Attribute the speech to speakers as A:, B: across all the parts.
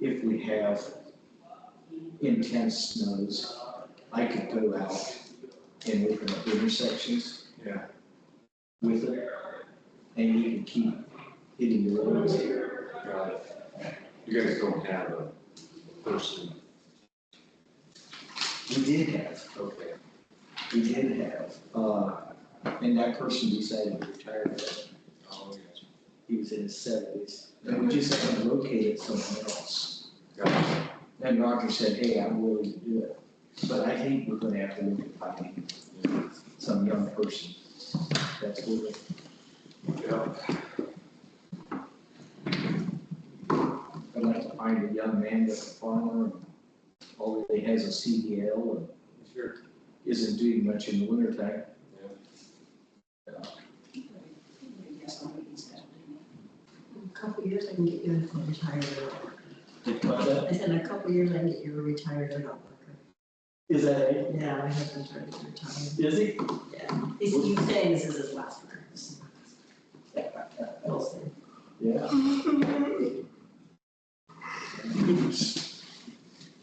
A: if we have intense snows, I could go out and open up intersections.
B: Yeah.
A: With it, and you can keep hitting the roads.
B: Got it. You guys don't have a person,
A: We did have,
B: okay,
A: we did have, uh, and that person decided to retire, but um,
B: oh, yes.
A: he was in his seventies. And we just had to locate it somewhere else.
B: Got it.
A: And Roger said, hey, I'm willing to do it, but I think we're gonna have to look at finding some young person that's willing.
B: Yeah,
A: I'd like to find a young man that's a farmer and all that he has is a CDL and
B: sure.
A: isn't doing much in the winter time.
B: Yeah.
C: A Couple years I can get you a retired adult worker. I said, in a couple years I can get you a retired adult worker.
A: Is that it?
C: Yeah, my husband's trying to retire.
A: Is he?
C: He's, he's saying this is his last work. We'll see.
A: Yeah.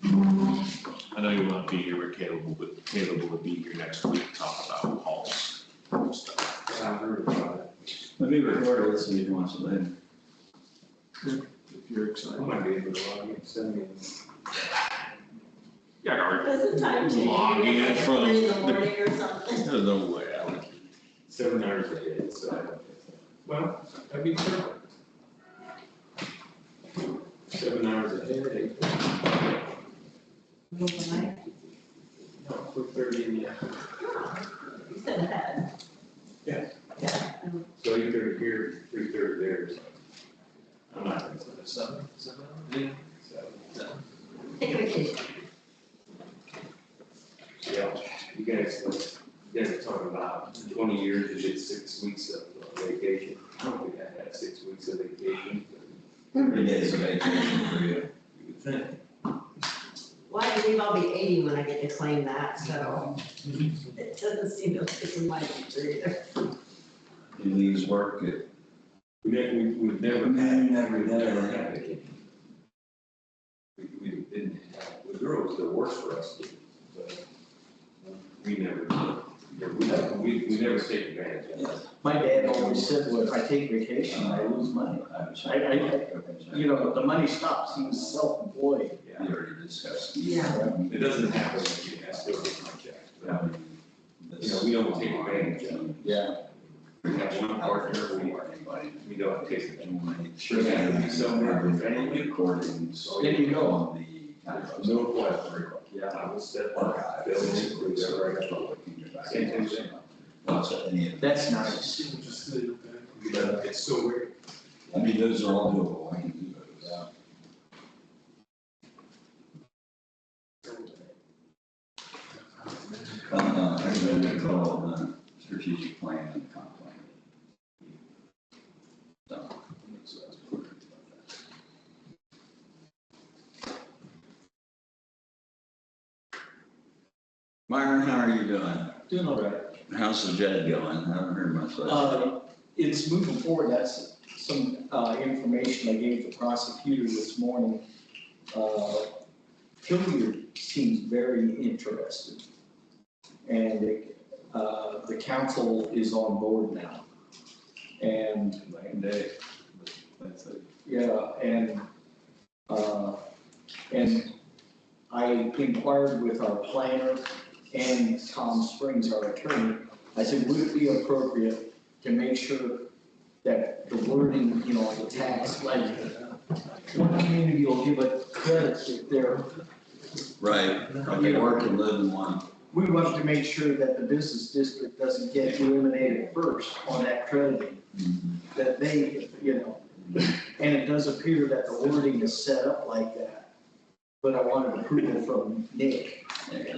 D: I know you won't be here, but Caleb will, Caleb will be here next week to talk about halls and stuff.
B: I heard about it.
E: Let me record it so you can watch it later.
D: If you're
B: I
D: excited.
B: might be able to log in, send me.
D: Yeah, or,
C: Does the time change?
D: Log in
C: Like
D: for
C: three in the
D: the-
C: morning or something?
D: there's no way I would.
B: Seven hours a day, so. I don't- Well, that'd be perfect. Seven hours a day, eight-
C: Overnight?
B: no, four thirty in the afternoon.
C: You said that.
B: Yeah.
C: Yeah. um,
B: So either here, three thirty there, so. I'm not.
A: Seven, seven,
C: Take a vacation.
B: Yeah, you guys, like, you guys are talking about twenty years, you did six weeks of uh, vacation. I don't think I had six weeks of vacation. Hmm.
E: Three days of vacation for you.
B: You would think.
C: Why do we all be eighty when I get to claim that, so it doesn't seem to fit in my future either.
E: He leaves work at.
B: We never, we, we've never.
E: Man, never,
B: we've
E: never.
B: had vacation. We, we didn't have, the girls that worked for us did, but uh, we never, we, never- we, we never take advantage of it.
A: My dad always said, well, if I take vacation, I lose money. I-
E: I.
A: You know, the money stops, he was self-employed.
B: Yeah.
E: We already discussed.
C: Yeah.
B: It doesn't happen, you know, still like that. but You know, we don't take advantage of
A: Yeah.
B: We have one partner, we,
E: Anybody.
B: we don't take advantage.
E: Sure.
B: Yeah, somewhere.
E: Recordings.
B: There
A: you go.
E: On the. uh,
B: No question. Yeah, I will step up, Bill, we never have trouble. Same thing.
E: Lots of any of.
A: That's nice.
B: But it's so weird.
E: I mean, those are all doable, I can do those. Uh, I think they call the strategic plan and comp plan. So, so that's important about that. Myron, how are you doing?
A: Doing all right.
E: How's the jet going? I haven't heard much lately.
A: Uh, It's moving forward, that's some uh, information I gave the prosecutor this morning. Uh, Hilliard seems very interested. And uh, the council is on board now. And,
E: Lame day. but That's it.
A: yeah, and, uh, and I inquired with our planner and Tom Springs, our attorney, I said, would it be appropriate to make sure that the wording, you know, the tax, like, one community will give a credit if they're,
E: Right, they work and live in one.
A: we want to make sure that the business district doesn't get eliminated first on that crediting, that they, you know, and it does appear that the wording is set up like that. But I wanted approval from Nick,
E: Yeah, yeah.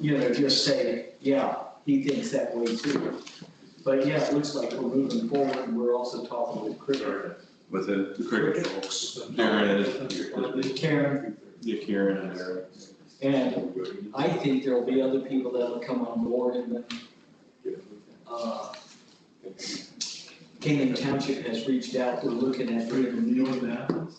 A: you know, just say, yeah, he thinks that way too. But yeah, it looks like we're moving forward, and we're also talking with Chris.
E: With the.
D: The cricket folks, Darren, your-
A: Karen,
D: your Karen and Eric.
A: and I think there'll be other people that'll come on board and then, uh, Canaan Township has reached out, we're looking at doing a new